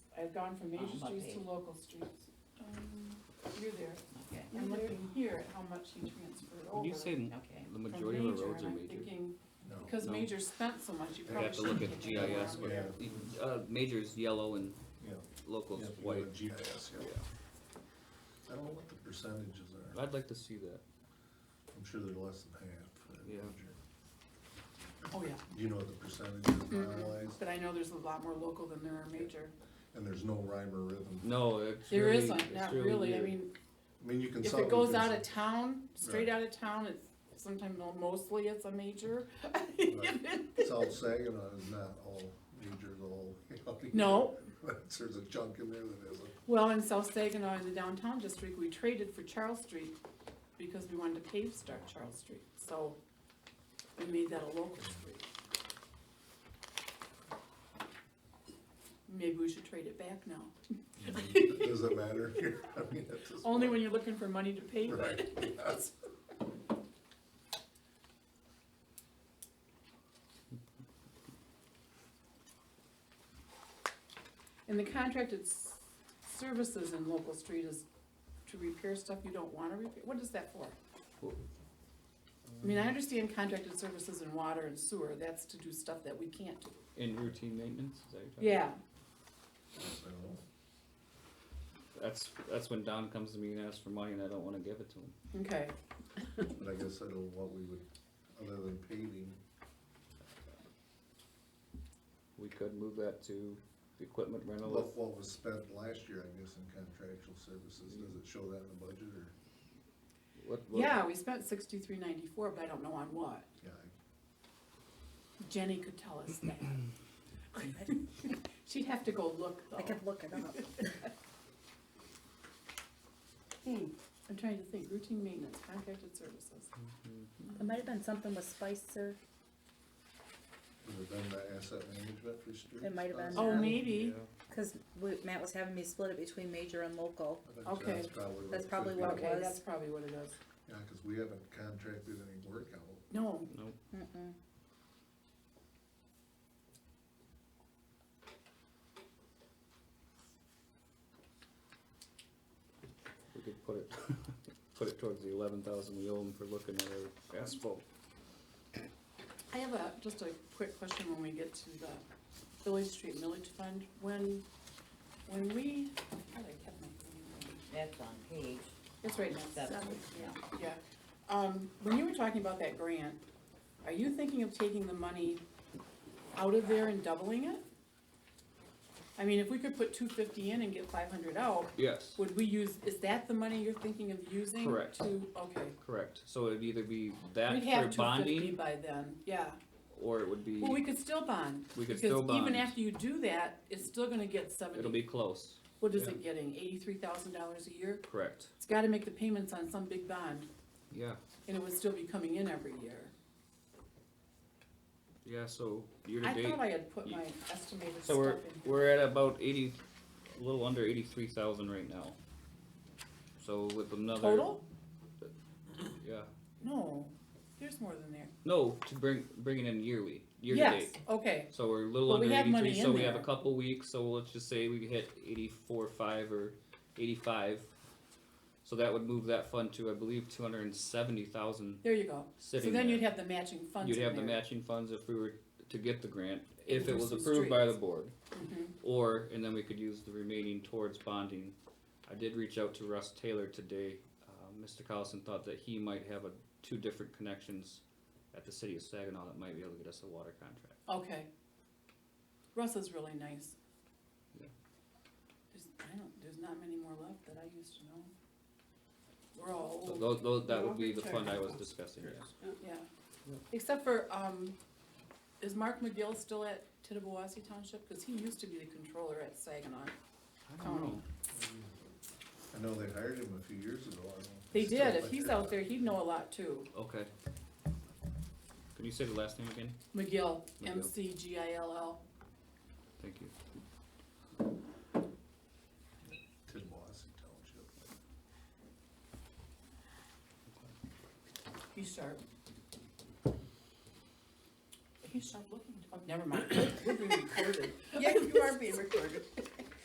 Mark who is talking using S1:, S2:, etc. S1: I've gone
S2: Oh,
S1: from
S3: On
S1: major
S3: what
S1: streets to
S3: page?
S1: local streets. Um, You're there,
S3: Okay,
S1: I'm looking here at how much he transferred over.
S2: When you say
S3: okay.
S2: the
S1: from
S2: majority of the
S1: major,
S2: roads are
S1: and I'm
S2: major, Oh,
S1: thinking,
S4: No.
S1: Because
S2: No.
S1: major spent so much, you
S2: I'd
S1: probably
S2: have to
S1: should.
S2: look at
S1: take it
S2: GIS
S1: down.
S2: where,
S4: Yeah.
S2: uh, major's yellow and
S4: Yeah.
S2: local's
S4: Yeah, if you
S2: white.
S4: go to GPS, yeah.
S2: Yeah.
S4: I don't know what the percentages are.
S2: I'd like to see that,
S4: I'm sure they're less than half. but-
S2: Yeah.
S1: Oh, yeah,
S4: Do you know what the percentage is
S1: Mm-mm.
S2: Mm-hmm.
S4: finalized?
S1: but I know there's a lot more local than there are major.
S4: And there's no rhyme or rhythm.
S2: no, it's
S1: There
S2: really-
S1: isn't,
S2: it's
S1: not really, I
S2: weird.
S1: mean,
S4: I mean, you can.
S1: if
S4: solve
S1: it goes
S4: because-
S1: out of town, straight
S4: Right.
S1: out of town, it's sometimes, well, mostly it's a major.
S4: South Saginaw is not all major, the whole. county.
S1: No.
S4: There's a chunk in there that isn't.
S1: Well, in South Saginaw, in the downtown district, we traded for Charles Street because we wanted to pave start Charles Street, so we made that a local street. Maybe we should trade it back now,
S4: Does it matter here? I mean, at this
S1: only
S4: point.
S1: when you're looking for money to pave it.
S4: Right, yes.
S1: And the contracted s- services in local street is to repair stuff you don't wanna repair, what is that for? I
S2: Mm-hmm.
S1: mean, I understand contracted services in water and sewer, that's to do stuff that we can't do.
S2: In routine maintenance, is that what you're talking
S1: Yeah,
S4: So,
S2: about? That's, that's when Don comes to me and asks for money and I don't wanna give it to him.
S1: okay,
S4: But I guess I don't know what we would, other than paving,
S2: We could move that to the equipment rental.
S4: what, what was spent last year, I guess, in contractual services, does it show that in the budget or?
S2: What- what-
S1: yeah, we spent sixty-three ninety-four, but I don't know on what,
S4: Yeah,
S1: Jenny could tell us that. She'd have to go look
S5: I
S1: though.
S5: could look it up.
S1: Hmm, I'm trying to think, routine maintenance, contracted services,
S2: Mhm.
S5: It might have been something with Spicer.
S4: would it been the asset management for streets?
S5: It might have been.
S1: oh,
S5: Um,
S1: maybe,
S2: Yeah.
S5: Because Matt was having me split it between major and local.
S4: I think
S1: Okay.
S4: That's probably.
S5: That's
S4: it
S5: probably
S4: could be.
S5: what it
S1: okay,
S5: was.
S1: that's probably what it is,
S4: Yeah, cause we haven't contracted any work out.
S1: no,
S2: Nope.
S5: Mm-mm.
S2: We could put it, put it towards the eleven thousand we owe them for looking at our asphalt.
S1: I have a, just a quick question when we get to the Village Street Millage Fund. When, when we, I thought I kept my thing.
S3: That's on page
S1: It's right next to
S3: seven, yeah.
S1: Yeah, um, when you were talking about that grant, are you thinking of taking the money out of there and doubling it? I mean, if we could put two fifty in and get five hundred out,
S2: Yes,
S1: would we use, is that the money you're thinking of using?
S2: Correct.
S1: To, okay.
S2: correct. So it'd either be that
S1: We'd have
S2: for
S1: two fifty
S2: bonding,
S1: by then, yeah.
S2: or it would be,
S1: Well, we could still bond.
S2: we could still
S1: Because even
S2: bond.
S1: after you do that, it's still gonna get
S2: It'll
S1: seventy,
S2: be close,
S1: what is it getting, eighty-three thousand dollars a year?
S2: correct.
S1: It's gotta make the payments on some big bond,
S2: Yeah,
S1: and it would still be coming in every year.
S2: yeah, so year to
S1: I
S2: date.
S1: thought I had put
S2: you-
S1: my estimated stuff
S2: So we're,
S1: in.
S2: we're at about eighty, a little under eighty-three thousand right now. So with another.
S1: Total?
S2: Yeah,
S1: No, there's more than there.
S2: no, to bring, bringing in yearly, year to
S1: Yes,
S2: date.
S1: okay,
S2: So we're a little
S1: But we
S2: under
S1: have money
S2: eighty-three, so
S1: in
S2: we have a
S1: there.
S2: couple weeks, so let's just say we hit eighty-four, five or eighty-five. So that would move that fund to, I believe, two hundred and seventy thousand
S1: there you go. So
S2: sitting
S1: then you'd
S2: there.
S1: have the matching funds
S2: You'd
S1: in
S2: have the
S1: there.
S2: matching funds if we were to get the grant, if
S1: For
S2: it was
S1: some
S2: approved by the
S1: streets.
S2: board.
S1: Mhm.
S2: Or, and then we could use the remaining towards bonding. I did reach out to Russ Taylor today. Uh, Mr. Collison thought that he might have a, two different connections at the city of Saginaw that might be able to get us a water contract.
S1: Okay. Russ is really nice.
S2: Yeah.
S1: There's, I don't, there's not many more left that I used to know. We're all
S2: So
S1: old,
S2: those, those, that would be the
S1: Water
S2: fund I was discussing, yes.
S1: yeah.
S2: Yeah.
S1: Except for, um, is Mark McGill still at Tittabawassee Township? Cause he used to be the controller at Saginaw.
S2: I don't know.
S4: I know they hired him a few years ago, I don't. know if
S1: They
S4: he's
S1: did,
S4: still
S1: if he's
S4: there.
S1: out there, he'd know a lot too.
S2: Okay. Can you say the last name again?
S1: McGill,
S2: McGill.
S1: M C G I L L.
S2: Thank you.
S4: Tidwassee Township.
S1: He's sharp. He's sharp looking. Oh, never mind. We're being recorded.
S5: Yeah, you are being recorded.